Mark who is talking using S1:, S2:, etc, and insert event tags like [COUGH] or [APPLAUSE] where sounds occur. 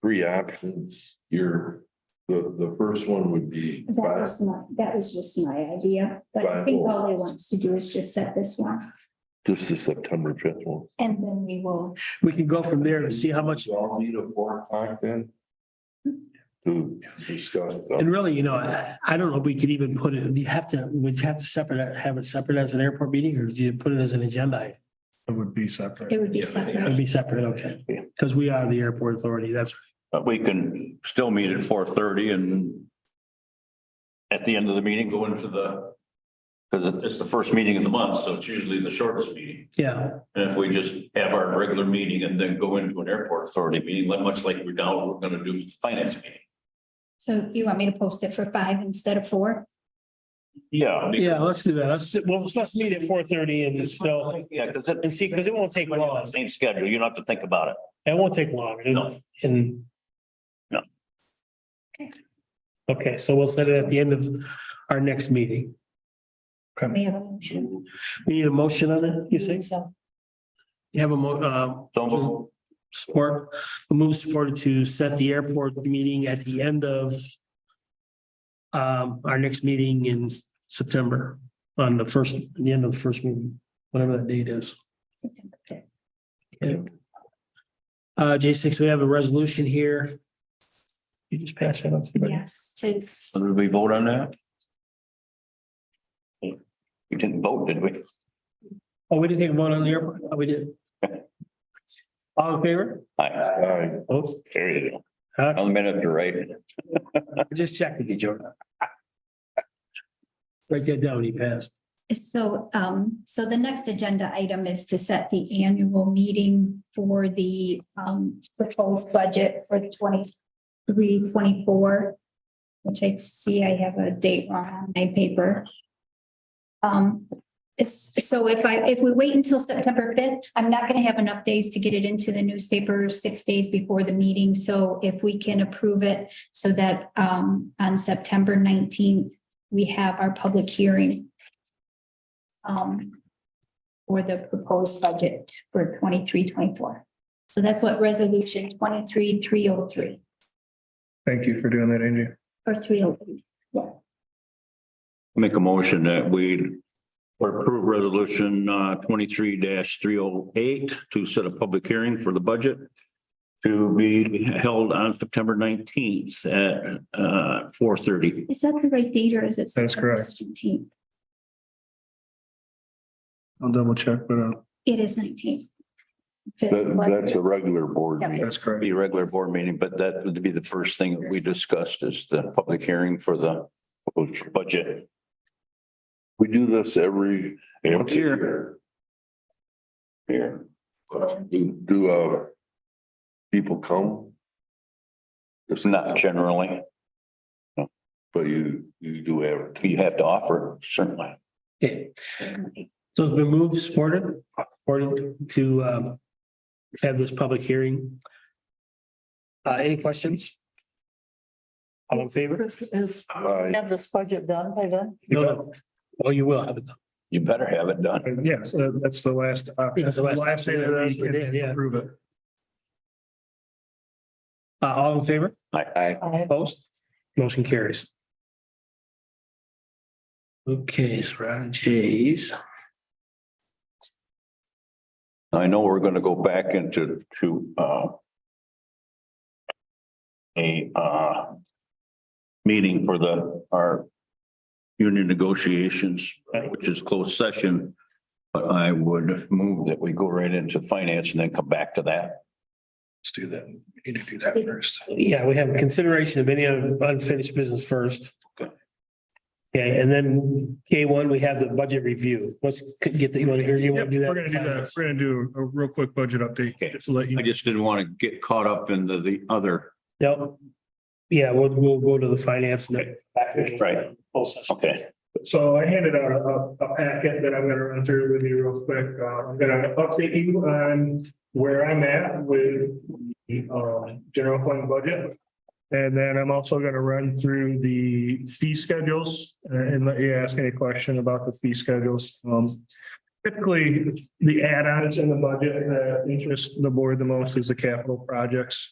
S1: three options. Your, the, the first one would be
S2: That
S1: five,
S2: was my, that was just my idea, but I
S1: Five
S2: think
S1: more.
S2: all they want us to do is just set this one
S1: this is September fifth one.
S2: and then we will.
S3: We can go from there and see how much,
S1: You all meet at four o'clock then? To discuss.
S3: and really, you know, I, I don't know if we could even put it, you have to, would you have to separate, have it separate as an airport meeting or do you put it as an agenda? item?
S4: It would be separate.
S2: It would be
S3: It'd
S2: separate.
S3: be separate, okay, because we are the airport authority, that's,
S5: But we can still meet at four thirty and at the end of the meeting, go into the, because it's the first meeting of the month, so it's usually the shortest meeting.
S3: yeah,
S5: And if we just have our regular meeting and then go into an airport authority meeting, like- much like we're now, we're gonna do with the finance meeting.
S2: So you want me to post it for five instead of four?
S5: Yeah.
S3: yeah, let's do that, let's, well, let's meet at four thirty and so,
S5: Yeah, because it.
S3: and see, because it won't take long,
S5: Same schedule, you don't have to think about it.
S3: it won't take long, and-
S5: No.
S3: and.
S5: No.
S3: Okay, so we'll set it at the end of our next meeting,
S2: We have a motion.
S3: we need a motion on it, you think? You have a mo, uh,
S5: So
S3: support, move supported to set the airport meeting at the end of um, our next meeting in September, on the first, the end of the first meeting, whatever that date is.
S2: September fifth.
S3: Uh, J six, we have a resolution here. You just pass that up to everybody.
S2: Yes, to s-
S5: did we vote on that? We didn't vote, did we?
S3: Oh, we didn't take a vote on the airport? Oh, we [LAUGHS] did. All in favor?
S5: Aye.
S1: Aye.
S3: Oops,
S5: There you go.
S3: Uh,
S5: On the minute, you're right.
S3: just checking you, Jordan. Write that down, he passed.
S2: So, um, so the next agenda item is to set the annual meeting for the, um, proposed budget for 23-24, which I see I have a date wrong on my paper. Um, it's- so if I, if we wait until September fifth, I'm not gonna have enough days to get it into the newspaper six days before the meeting. So if we can approve it so that, um, on September nineteenth, we have our public hearing um, for the proposed budget for 23-24. So that's what resolution twenty-three, three oh three,
S4: Thank you for doing that, Angie.
S2: or three oh three.
S5: Make a motion that we approve resolution uh twenty-three three oh eight to set a public hearing for the budget to be held on September nineteenth at uh four thirty.
S2: Is that the right date or is it?
S4: That's correct.
S2: Seventeenth.
S4: I'll double check, but uh,
S2: It is nineteenth.
S1: That, that's a regular board
S2: Yeah.
S1: meeting.
S4: that's correct.
S5: Be a regular board meeting, but that would be the first thing that we discussed is the public hearing for the budget.
S1: We do this every.
S5: Once a year.
S1: Here. Do, do, uh, people come,
S5: It's not generally,
S1: but you, you do have,
S5: you have to offer certainly.
S3: Okay. So it's been moved, supported, supported to um, have this public hearing. Uh, any questions? All in favor?
S6: This is,
S1: aye.
S6: have this budget done by then?
S3: No, no. Well, you will have it.
S5: You better have it done.
S4: Uh, Yes, uh, that's the last. option.
S3: That's the last thing that
S4: we
S3: is,
S4: can
S3: yeah, yeah.
S4: Prove it.
S3: Uh, all in favor?
S1: Aye.
S6: I-
S3: Opposed? Motion carries. Okay, so we're on J's.
S5: I know we're gonna go back into to uh. A uh. Meeting for the our. Union negotiations, uh, which is closed session. But I would move that we go right into finance and then come back to that.
S4: Let's do that. We need to do that first.
S3: Yeah, we have consideration of any unfinished business first. Okay, and then K one, we have the budget review. Let's get the, you want to hear, you
S4: Yep,
S3: want to do
S4: We're
S3: that?
S4: gonna do that. We're gonna do a real quick budget update,
S5: Okay.
S4: just to let you.
S5: I just didn't want to get caught up in the the other.
S3: Yep. Yeah, we'll, we'll go to the finance. and then-
S5: Right. Okay.
S4: So I handed out a, a packet that I'm gonna run through with you real quick. Uh, I'm gonna update you on where I'm at with the, um, general fund budget. And then I'm also gonna run through the fee schedules uh, and let you ask any question about the fee schedules. Um, typically, the add-ons in the budget that interest the board the most is the capital projects.